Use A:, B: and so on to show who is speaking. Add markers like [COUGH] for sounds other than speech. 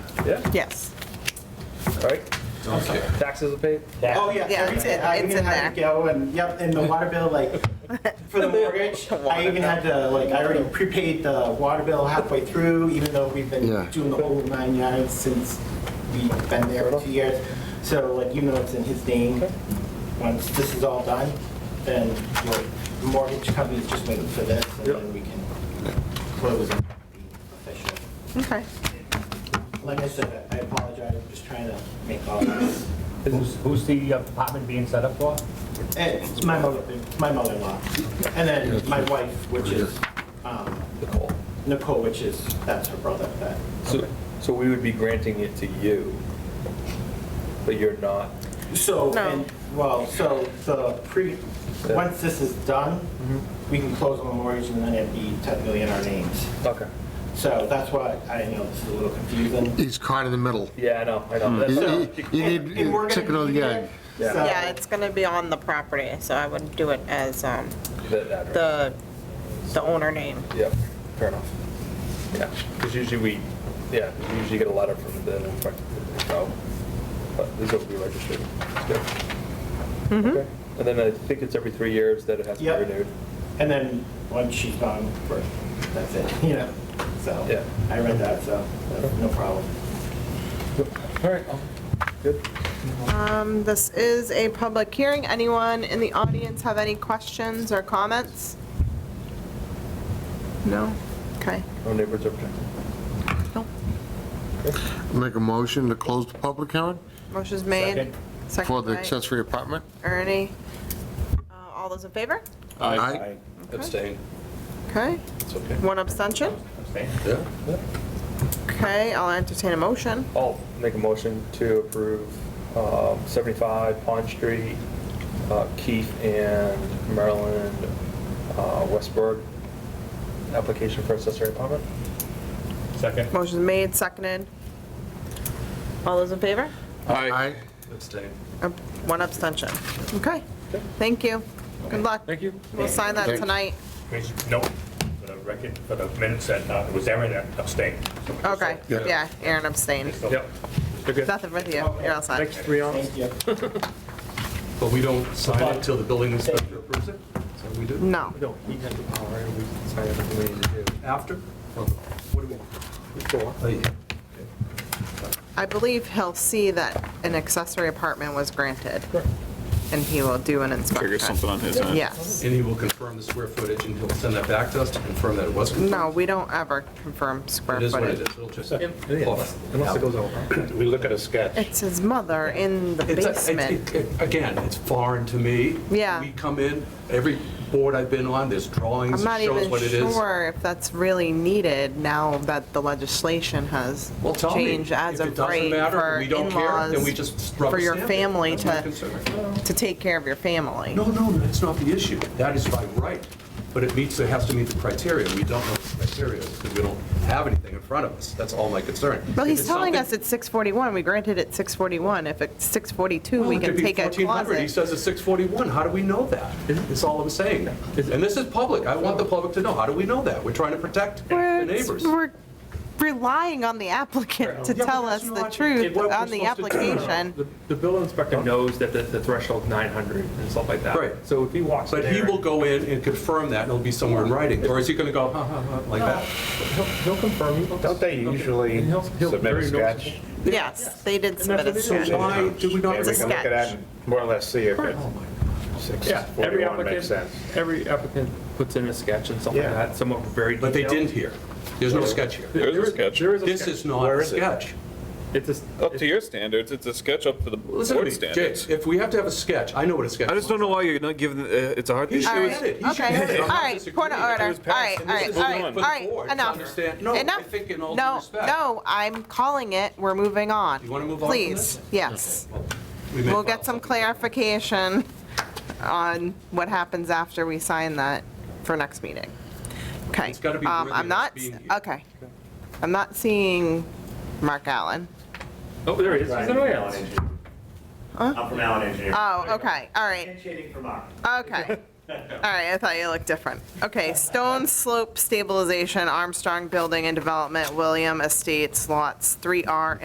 A: Yeah,
B: Yes.
A: all right.
C: Okay.
A: Taxes are paid?
D: Oh,
B: Yeah,
D: yeah,
B: it's
D: everything.
B: in-
D: I
B: it's
D: even
B: in
D: had to go and, yep, and the water bill,
B: [LAUGHS]
D: like, for the mortgage, I even had to, like, I already prepaid the water bill halfway through, even though we've
C: Yeah.
D: been doing the whole nine yards since we've been there for two years. So, like, even though it's in his name, once this is all done, then like, the mortgage company's just waiting for this, and
A: Yep.
D: then we can close and be official.
B: Okay.
D: Like I said, I apologize, I'm just trying to make all this.
E: Who's, who's the uh, apartment being set up for?
D: Eh, It's my mother, my mother-in-law, and then my wife, which is um,
A: Nicole.
D: Nicole, which is, that's her brother, that,
A: So, so we would be granting it to you, but you're not?
D: so,
B: No.
D: and, well, so the pre, once this is done,
A: Mm-hmm.
D: we can close on the mortgage and then it'd be technically in our names.
A: Okay.
D: So that's why, I know this is a little confusing.
C: He's caught in the middle.
A: Yeah, I know, I know.
C: You-
A: That's-
C: You you need
D: And we're gonna
C: chicken or
D: be
C: the
D: there,
C: egg.
A: Yeah.
D: so-
B: Yeah, it's gonna be on the property, so I would do it as um,
A: that- that, right.
B: the, the owner name.
A: Yep, fair enough. Yeah, because usually we, yeah, we usually get a letter from the inspector, so, but this will be registered. It's good. Okay. And then I think it's every three years that it has to be
D: Yep.
A: renewed.
D: And then, once she's gone, we're- that's it, [LAUGHS] you know, so.
A: Yeah.
D: I read that, so, that's no problem.
A: All right, good.
B: Um, This is a public hearing. Anyone in the audience have any questions or comments? No? Okay.
A: No neighbors objecting.
B: No.
C: Make a motion to close the public hearing
B: Motion's made.
E: Second.
B: Second
C: for the
B: by
C: accessory apartment.
B: Ernie. Uh, All those in favor?
C: Aye.
B: Okay.
A: Abstain,
B: Okay.
A: it's okay.
B: One abstention.
E: Abstain.
B: Okay, I'll entertain a motion.
A: I'll make a motion to approve um, 75 Pond Street, uh, Keith and Marilyn uh, Westberg, application for accessory apartment.
E: Second.
B: Motion's made, seconded. All those in favor?
C: Aye.
A: Abstain.
B: Uh, One abstention. Okay, thank you. Good luck.
A: Thank you.
B: We'll sign that
C: Thanks.
B: tonight.
E: No, for the record, for the minutes that, uh, it was Aaron that abstained. So we just-
B: Okay,
C: Yeah.
B: yeah, Aaron abstained.
E: so-
A: Yep. You're good.
B: Nothing with you, you're outside.
A: Next three on.
D: Thank you.
F: But we don't sign it till the building inspector approves it? Is that what we do?
B: No,
A: No, he had the power, and we decided what we needed to do.
F: After? Or What do we?
A: Before.
F: Oh, yeah.
B: I believe he'll see that an accessory apartment was granted, and he will do an inspection.
G: Figure something on his end.
B: Yes.
F: And he will confirm the square footage, and he'll send that back to us to confirm that it was confirmed?
B: No, we don't ever confirm square
F: It is what it
B: footage.
F: is, it'll just.
A: Unless unless it goes over.
E: We look at a sketch.
B: It's his mother in the
F: It's- it's-
B: basement.
F: it- it- Again, it's foreign to me.
B: Yeah.
F: We come in, every board I've been on, there's drawings,
B: I'm not
F: it shows
B: even
F: what it is.
B: sure if that's really needed now that the legislation has
F: Well, tell me.
B: changed as of
F: If it doesn't
B: right
F: matter,
B: for
F: we don't care, then we
B: in-laws,
F: just rubber
B: for your
F: stamp it.
B: family
F: That's my
B: to,
F: concern.
B: to take care of your family.
F: No, no, that's not the issue. That is by right, but it meets, it has to meet the criteria. We don't know the criteria because we don't have anything in front of us. That's all my concern.
B: Well,
F: If
B: he's
F: it's
B: telling us
F: something-
B: it's 641, we granted it 641, if it's 642,
F: Well,
B: we
F: it
B: can
F: could be
B: take a
F: 1400. He
B: closet.
F: says it's 641. How do we know that? That's all I'm saying. And this is public. I want the public to know. How do we know that? We're trying to protect the
B: We're-
F: neighbors.
B: We're relying on the applicant to
F: Yeah, but
B: tell us
F: that's
B: the
F: not-
B: truth
F: what we're
B: on the
F: supposed to do.
B: application.
A: The- The building inspector knows that the- the threshold's 900 and stuff like that.
F: Right.
A: So if he walks in
F: But he
A: there
F: will
A: and-
F: go in and confirm that, and it'll be somewhere in writing. Or is he going to go, ha, ha, ha, like that?
A: He'll he'll confirm.
H: Don't they usually
A: He'll- he'll-
H: submit
A: very
H: a sketch?
A: noticeable.
B: Yes, they did submit a
A: that's what it is.
B: sketch.
F: So why do we not?
H: And we can look at that and more or less see if it,
F: Oh, my
A: Yeah, every
H: 641 makes
A: applicant,
H: sense.
A: every applicant puts in a sketch and something like
H: Yeah.
A: that, some are very
F: But they
A: detailed.
F: didn't here. There's no sketch here.
G: There is a sketch.
A: There is a
F: This is
A: sketch.
F: not
H: Where
F: a
H: is it?
F: sketch.
A: It's a s-
G: Up to your standards, it's a sketch up to the
F: Listen to
G: board
F: me, Jay,
G: standards.
F: if we have to have a sketch, I know what a sketch is.
G: I just don't know why you're not giving, uh, it's a hard
F: He
G: thing.
F: should
B: All
F: get
B: right,
F: it. He should get
B: okay,
F: it.
B: all
F: I'm not
B: right,
F: disagreeing.
B: point of order, all
G: was
B: right,
G: passed,
B: all
G: and this
B: right,
G: is
B: all
G: the
B: right,
G: one
B: all
G: for the
B: right,
F: board to
B: enough.
F: understand. No, I
B: Enough.
F: think in all due
B: No,
F: respect-
B: No, I'm calling it, we're moving on.
F: You wanna move on from
B: Please,
F: this?
B: yes.
F: We may
B: We'll
F: file
B: get some
F: something.
B: clarification on what happens after we sign that for next meeting. Okay.
F: It's gotta be
B: um,
F: worthy
B: I'm
F: of
B: not,
F: being here.
B: okay. I'm not seeing Mark Allen.
A: Oh, there he is, he's an island
H: I'm from Allen Engineering.
B: Oh, okay, all right,
H: Shading from Mark.
B: okay. All right, I thought you looked different. Okay, Stone Slope Stabilization, Armstrong Building and Development, William Estates, lots 3R